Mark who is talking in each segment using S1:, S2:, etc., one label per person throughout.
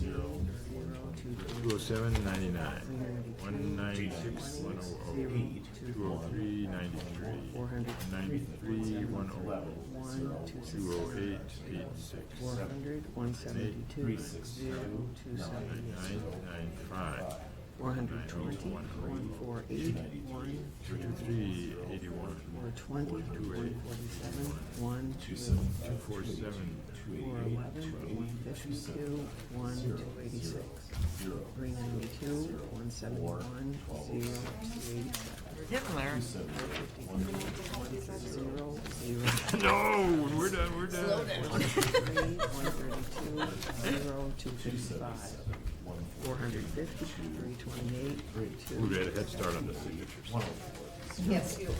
S1: Two oh seven ninety-nine, one ninety-six, one oh oh, two oh three ninety-three, one ninety-three, one oh
S2: One, two,
S1: oh, two oh eight eight-six,
S2: four
S1: nine
S2: hundred, one seventy-two, zero, two seventy,
S1: nine-five,
S2: four hundred twenty,
S1: one
S2: one four eight, one,
S1: two three eighty-one,
S2: four twenty, one forty-seven, one,
S1: two
S2: two,
S1: four seven,
S2: four eleven, one fifty-two, one, two eighty-six, three ninety-two, one seventy-one, zero, two eighty-seven,
S3: You're getting there.
S2: zero, zero,
S1: No, we're done, we're done.
S2: three, one thirty-two, zero, two fifty-five, four hundred fifty, three twenty-eight, two,
S1: We had a head start on the signatures.
S3: Yes, you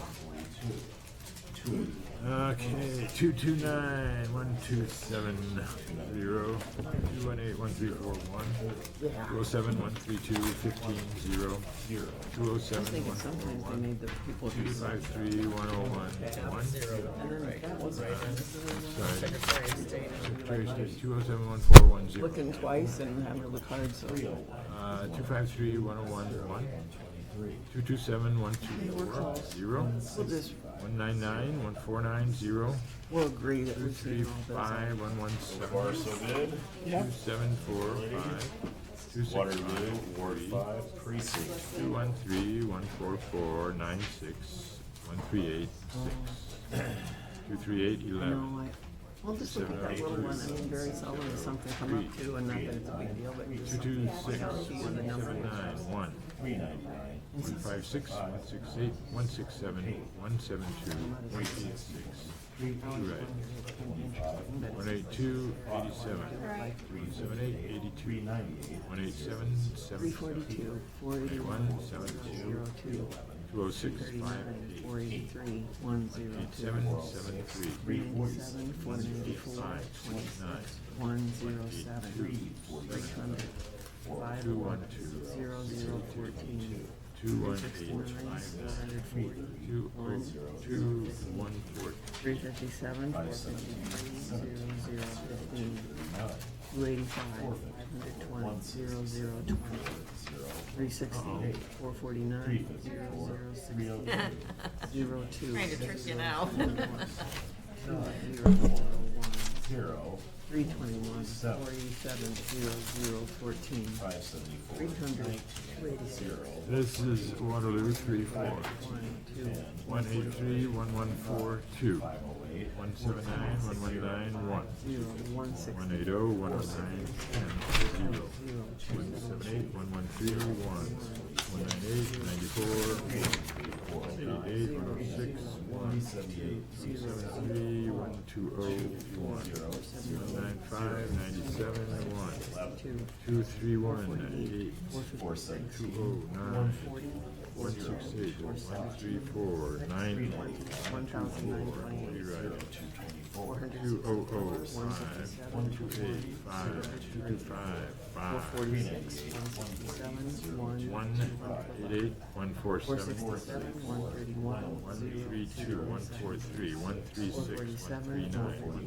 S1: Okay, two two nine, one two seven zero, two one eight, one three four one, two oh seven, one three two, fifteen, zero, two oh
S2: I
S1: seven,
S2: think
S1: one four
S2: sometimes they
S1: one,
S2: made the people
S1: two
S2: do
S1: five three, one oh one, one.
S2: That was
S1: Sorry,
S3: Secretary of State.
S1: Secretary of State, two oh seven, one four one zero,
S2: looking twice and having to look hard, so they
S1: uh, two five three, one oh one, one, two two seven, one two four, zero,
S2: will just,
S1: one nine nine, one four nine, zero,
S2: we'll agree that
S1: two
S2: we've
S1: three
S2: seen all those.
S1: five, one one seven,
S4: So good.
S1: Two, seven, four, five, two, six,
S4: Waterloo,
S1: five,
S4: Ward
S1: three,
S4: Five, Precinct.
S1: two, one, three, one, four, four, nine, six, one, three, eight, six, two, three, eight, eleven,
S2: No, I, we'll just look at that little one, I mean, very seldom does something come up to, and not that it's a big deal, but
S1: two,
S2: just
S1: two, six, one, seven, nine, one, one, five, six, one, six, eight, one, six, seven, one, seven, two, one, eight, six, two, right, one, eight, two, eighty-seven,
S2: like
S1: one, seven, eight, eighty-two, one, eight, seven,
S2: three
S1: seven, seven,
S2: forty-two, four eighty-one,
S1: one, seven, two,
S2: zero two,
S1: two oh six, five,
S2: thirty-nine,
S1: eight,
S2: four eighty-three, one zero
S1: Seven,
S2: two,
S1: seven, three,
S2: ninety-seven, four ninety-four,
S1: five,
S2: twenty-six,
S1: nine,
S2: one zero seven, three hundred, five
S1: two, one,
S2: one,
S1: two,
S2: zero zero fourteen,
S1: two, one, eight,
S2: sixty-nine,
S1: five,
S2: seven
S1: nine,
S2: hundred forty,
S1: two, oh, two, one, four,
S2: Three fifty-seven, four fifty-three, zero, zero, fifteen. Two eighty-five, five hundred twenty, zero, zero, twenty. Three sixty, four forty-nine, zero, zero, sixty, zero, two.
S3: Trying to trick you now.
S2: Zero, zero, one.
S4: Zero,
S2: Three twenty-one, four eighty-seven, zero, zero, fourteen.
S4: five seventy-four.
S2: Three hundred, two eighty-six,
S1: This is Waterloo, three, four,
S2: one, two.
S1: one, eight, three, one, one, four, two,
S4: Oh, eight.
S1: one, seven, nine, one, one, nine, one,
S2: Zero, one, six,
S1: one, eight, oh, one, oh, nine, ten, zero,
S2: zero, two,
S1: one, seven, eight, one, one, three, one, one, nine, eight, ninety-four, one, eight, eight, one, oh, six, one, two, seven, three, one, two, oh, one, one, nine, five, ninety-seven, one,
S2: two,
S1: Two, three, one, eight,
S2: four fifty-six,
S1: two, oh, nine,
S2: forty,
S1: one, six, eight, one, three, four, nine,
S2: one thousand nine twenty-eight.
S1: you're right.
S2: Four hundred
S1: Two, oh, oh,
S2: One
S1: five,
S2: fifty-seven,
S1: two, eight, five, two, five,
S2: four
S1: five,
S2: forty-six, one sixty-seven, one.
S1: one, eight, eight, one, four,
S2: Four
S1: seven,
S2: sixty-seven, one thirty-one,
S1: one,
S2: zero,
S1: three, two, one, four, three, one, three,
S2: four
S1: six, one, three,
S2: forty-seven, one
S1: nine, one,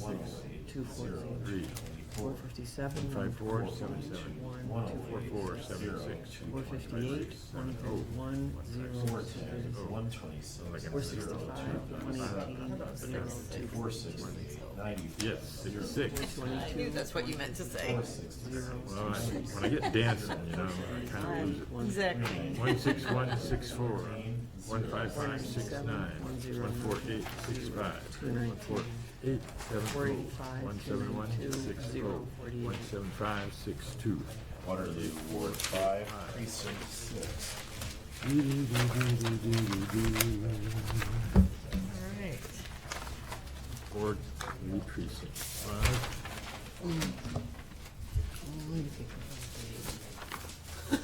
S2: forty-eight,
S1: five, six,
S2: two four zero,
S1: three,
S2: four fifty-seven,
S1: five,
S2: one four,
S1: four, seven, seven,
S2: one, two
S1: four, four,
S2: forty-six,
S1: seven, six,
S2: four fifty-eight, one thirty-one, zero, seven,
S4: One twenty-six.
S2: four sixty-five, one eighteen, zero, two forty-six,
S4: Ninety-four.
S1: yes, six, six.
S3: I knew that's what you meant to say.
S2: zero,
S1: Well, I, when I get dancing, you know, I kind of lose it.
S2: one
S3: Exactly.
S1: One six one six four, one five five six nine, one four eight six five, one four eight seven
S2: four
S1: four,
S2: eighty-five,
S1: one
S2: two
S1: seven one
S2: ninety-two,
S1: six
S2: zero,
S1: four,
S2: forty-eight.
S1: one seven five six two.
S4: Waterloo, Ward Five, Precinct Six.
S3: All right.
S1: Board new precinct five,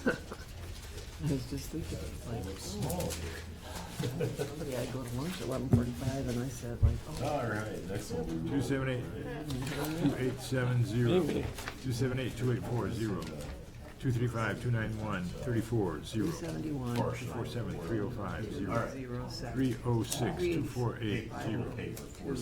S2: I was just thinking, like, oh. Somebody, I go to lunch at eleven forty-five, and I said, like, oh,
S4: All right, next one.
S1: two seven eight, two eight seven zero, two seven eight, two eight four zero, two three five, two nine one, thirty-four, zero,
S2: three seventy-one,
S1: four seven, three oh five, zero,
S2: zero, seven.
S1: three oh six, two four eight, zero.
S4: Paper, four